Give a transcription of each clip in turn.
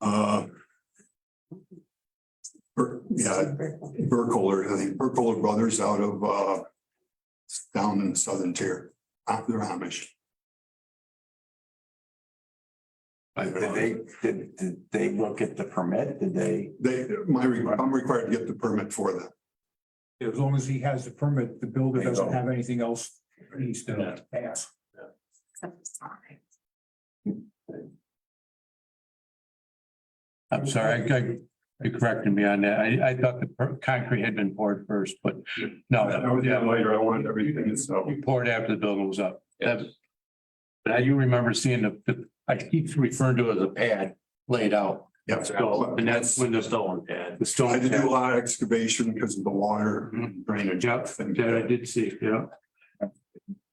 Uh, Bur- Yeah, Burkholder, I think Burkholder Brothers out of uh. Down in the southern tier, out there Amish. Uh, Did they, did, did they look at the permit? Did they? They, my, re- I'm required to get the permit for that. As long as he has the permit, the builder There you doesn't go. have anything else he's done pass. I'm sorry, I, I, you corrected me on that. I, I thought the per- concrete had been poured first, but no, Oh, Oh, yeah, later, I wanted everything, so. we poured after the building was up. That- Now you remember seeing the- the, I keep referring to it as a pad laid out. Yeah, So, and that's when the stone pad. The I stone had to do a pad. lot of excavation because of the water Mm-hmm. uh, drainage. Yeah, thing. that I did see, yeah.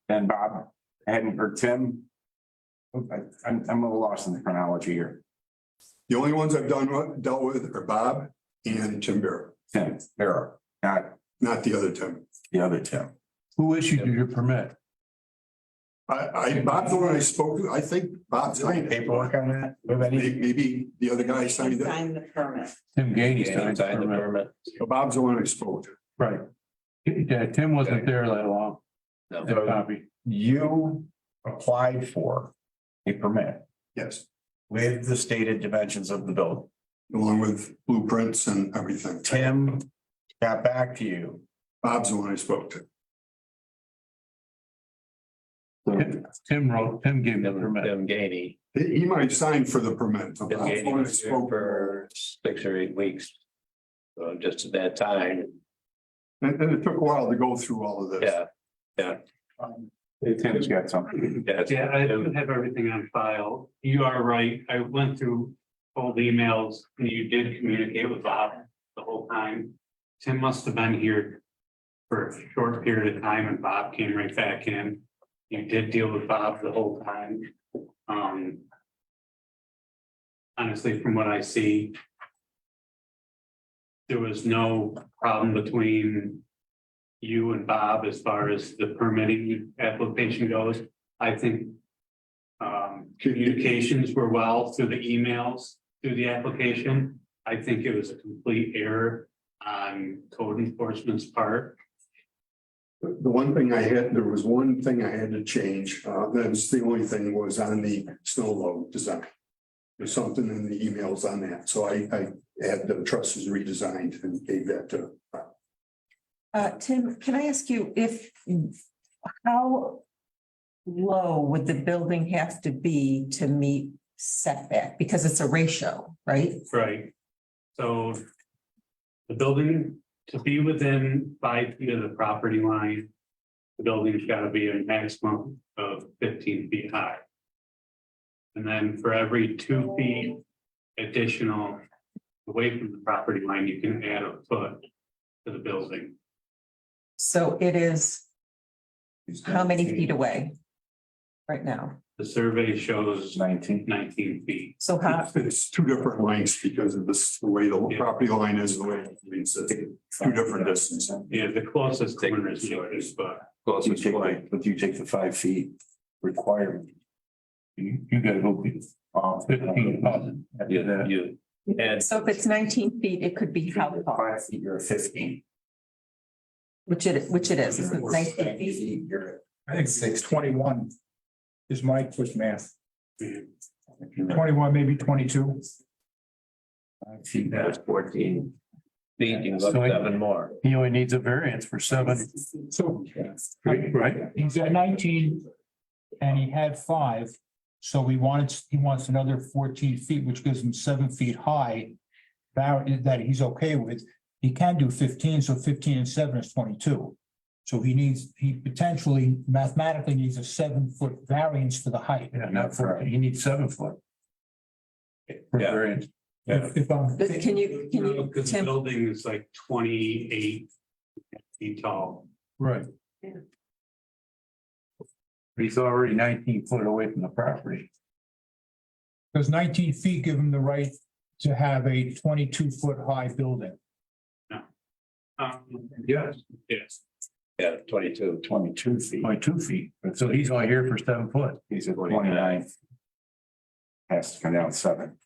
And Bob, I hadn't heard Tim. Oh, I- I'm, I'm a little lost in the chronology here. The only ones I've done, with- dealt with are Bob and Tim Bear, Tim, there are, not not the other Tim. the other Tim. Who issued you your permit? I, I, Bob's the one I spoke, with. I think Bob signed it. Paperwork on that? Do we have any? May- Maybe the other guy signed it, Sign the permit. Tim Gainey signed the permit. but Bob's the one I spoke to. Right. Yeah, Tim wasn't there that long. That copy. You applied for a permit Yes, with the stated dimensions of the building. along with blueprints and everything. Tim got back to you. Bob's the one I spoke to. Tim- Tim wrote, Tim gave me the Them, permit. them Gainey. He, he might sign for the permit. but Them Bob's the Gainey one I was here spoke to. for six or eight weeks. So just at that time, And, and it took a while to go through all of this. yeah. Tim's got something. that's- Yeah, I don't have everything on file. You are right. I went through old emails and you did communicate with Bob the whole time. Tim must have been here for a short period of time and Bob came right back in. You did deal with Bob the whole time. Um. Honestly, from what I see. There was no problem between. You and Bob as far as the permitting application goes. I think. Um, communications were well through the emails, through the application. I think it was a complete error on code enforcement's part. The the one thing I had, there was one thing I had to change, uh, that's the only thing was on the snow load design. There's something in the emails on that, so I, I had the trusses redesigned and gave that to. Uh, Tim, can I ask you if, how low would the building have to be to meet setback? Because it's a ratio, right? Right. So. The building to be within five feet of the property line. The building's gotta be a maximum of fifteen feet high. And then for every two feet additional away from the property line, you can add a foot to the building. So it is how many feet away right now? The survey shows Nineteen. nineteen feet. So how, It's two different lengths because of this, the way the property line is, the way it means it's two different distances. Yeah, the closest corner is yours, but But you take the- but you take the five feet requirement. You, you gotta go be off. fifteen thousand. You, you, and so if it's nineteen feet, it could be how far, Five feet, you're fifteen. which it, which it is, Or nineteen 10 feet. feet, You're. I think six twenty-one is my quick math. yeah, Twenty-one, maybe twenty-two. five feet. that was fourteen. Feet, you can go So I- seven more. He only needs a variance for seven, So right? right? he's at nineteen and he had five. So he wanted, he wants another fourteen feet, which gives him seven feet high. That, that he's okay with. He can do fifteen, so fifteen and seven is twenty-two. So he needs, he potentially mathematically needs a seven-foot variance for the height. Yeah, not for, he needs seven foot. For Yeah. variance. If, if I'm. But can you, can you, Because the Tim, building is like twenty-eight feet tall. Right. Yeah. He's already nineteen foot away from the property. Does nineteen feet give him the right to have a twenty-two foot high building? Um, yes, yes. Yeah, twenty-two. Twenty-two feet. Only two feet, so he's only here for seven foot. He's at twenty-nine. Has to come down seven.